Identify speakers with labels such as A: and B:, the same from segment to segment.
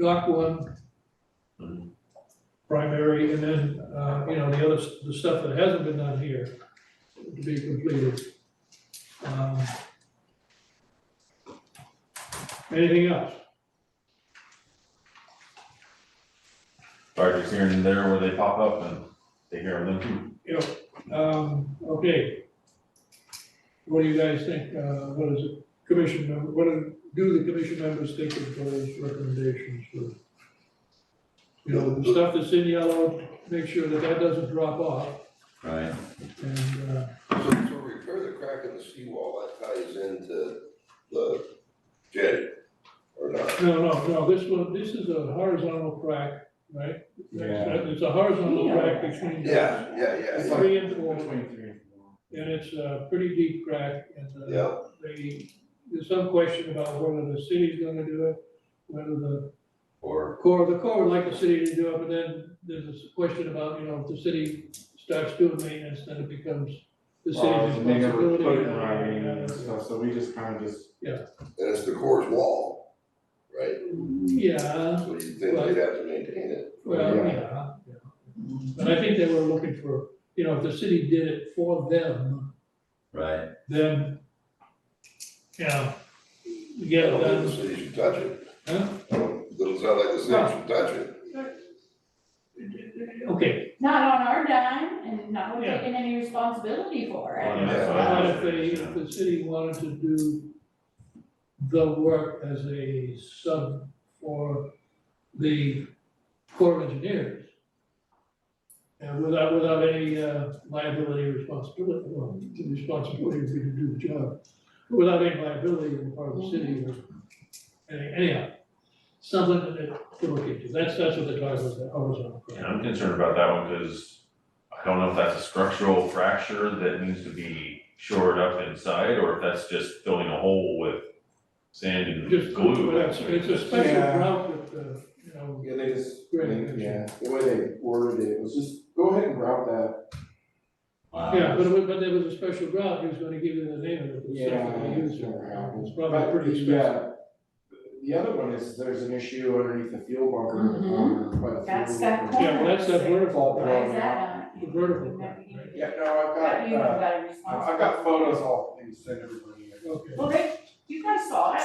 A: Dock one. Primary, and then, uh, you know, the other, s- the stuff that hasn't been done here to be completed. Um, Anything else?
B: Projects here and there where they pop up and take care of them too.
A: Yep, um, okay. What do you guys think, uh, what is it, commission member, what do, do the commission members think of those recommendations for? You know, the stuff that's in yellow, make sure that that doesn't drop off,
B: Right.
A: and, uh,
C: So, so repair the crack in the seawall, that ties into the jetty, or not?
A: no, no, no, this one, this is a horizontal crack, right?
D: Yeah.
A: It's a horizontal crack between. the
C: Yeah, yeah, yeah,
A: Three and four, and
D: Between three and four.
A: it's a pretty deep crack, and, uh,
C: yeah,
A: they, there's some question about whether the city's gonna do it, whether the
C: or,
A: core, the core would like the city to do it, but then there's this question about, you know, if the city starts doing maintenance, then it becomes the city's
D: Well, they never
A: responsibility.
D: put it in
A: uh,
D: writing
A: uh,
D: and stuff, so we just kind of just,
C: and it's the core's wall, right?
A: Yeah,
C: So you think they'd have to maintain it,
A: well,
D: Yeah.
A: yeah, yeah. But I think they were looking for, you know, if the city did it for them,
B: Right.
A: then, you know, you
C: I
A: get it
C: don't think
A: done,
C: the city should touch it,
A: huh?
C: I don't, doesn't sound like the city should touch it.
A: Okay,
E: Not on our dime and not
A: Yeah.
E: taking any responsibility for
B: Well,
E: it.
B: yeah.
A: So What if they, if the city wanted to do the work as a sub for the Corps of Engineers? And without, without any uh, liability or responsibility, well, the responsibility would be to do the job, but without any liability on the part of the city or any- anyhow. Something that, to look into, that's, that's what they're talking about, the horizontal.
B: And I'm concerned about that one because I don't know if that's a structural fracture that needs to be shored up inside or if that's just filling a hole with sand and
A: Just,
B: glue.
A: it's a special
D: Yeah.
A: route that, uh, you know,
D: yeah, they just,
A: Great.
D: yeah, the way they worded it was just, go ahead and route that.
A: Yeah, but, it was- but there was a special route, he was gonna give you the name of it. but it's not gonna
D: Yeah,
A: use
D: it's never happened.
A: It's probably
D: But
A: pretty
D: the,
A: expensive.
D: uh, The other one is, there's an issue underneath the fuel bunker. um, by the fuel
E: Mm-hmm. That's that
D: bunker.
E: corner.
A: Yeah, well, that's that vertical,
D: Fall
E: Why is
D: down.
E: that
A: the vertical
E: on?
A: part, right?
D: Yeah, no,
E: That
D: I've
E: you have
D: got, uh,
E: got a
D: I've I've
E: responsibility.
D: got photos all, I can send everybody.
A: Okay.
E: Well, they, you guys saw it,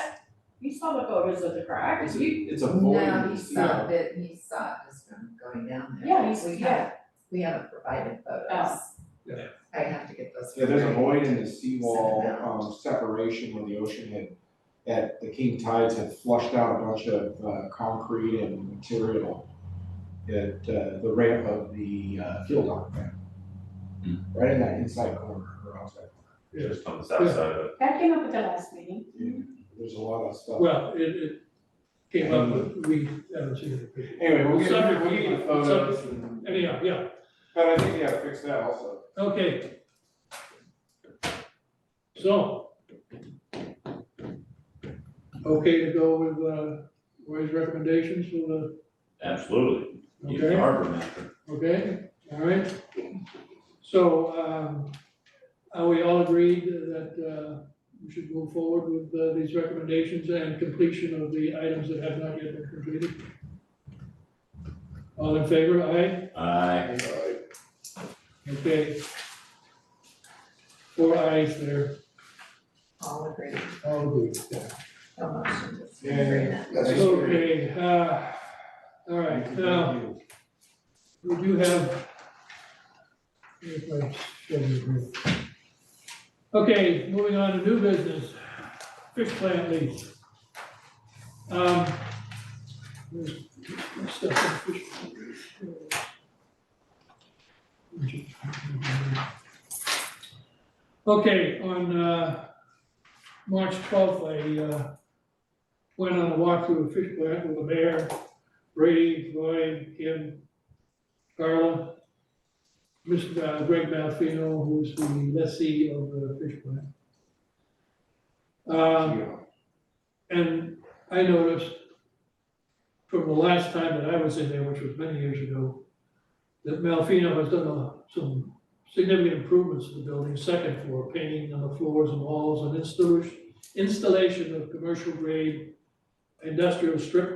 E: you saw the photos of the crack,
F: Is
E: you,
F: It's a void.
G: No, he saw
F: No.
G: that, he saw it just from going down there.
E: yeah, you,
G: We
E: see- yeah,
G: haven't, we haven't provided photos.
E: Oh.
A: Yeah.
G: I have to get those.
D: Yeah, there's a
G: from
D: void in the seawall,
G: Send it out.
D: um, separation where the ocean had, that the king tides had flushed out a bunch of, uh, concrete and material at, uh, the ramp of the, uh, fuel dock there.
B: Hmm.
D: Right in that inside corner or outside.
B: Just on the south side of it.
E: that came up at the last meeting.
D: There's a lot of stuff.
A: Well, it, it came up, but we haven't seen it. yet.
D: Anyway, we'll get,
A: Subject-
D: we'll get you the photos and,
A: Anyhow, yeah,
D: but I think, yeah, fix that also.
A: okay. So. Okay to go with, uh, Roy's recommendations for the,
B: Absolutely. Use the
A: okay?
B: harbor master.
A: Okay, all right. So, um, are we all agreed that, uh, we should move forward with, uh, these recommendations and completion of the items that have not yet been completed? All in favor, aye?
B: Aye.
C: Alright,
A: Okay. Four ayes there,
G: All agreed,
A: all good.
G: no motion, just
D: Yeah, yeah,
G: agree that.
C: that's
D: Thank you.
A: Okay, uh, all right, now,
D: Thank you.
A: We do have. if I show you here. Okay, moving on to new business, fish plant lease. Um, there's- there's stuff in fish plant lease. Okay, on, uh, March twelfth, I, uh, went on a walkthrough of fish plant with the mayor, Brady, Roy, Kim, Carla, Mr. uh, Greg Malfino, who's the lessee of the fish plant. Um, and I noticed from the last time that I was in there, which was many years ago, that Malfino has done a- some significant improvements to the building, second floor, painting on the floors and walls, and installation, installation of commercial grade industrial strip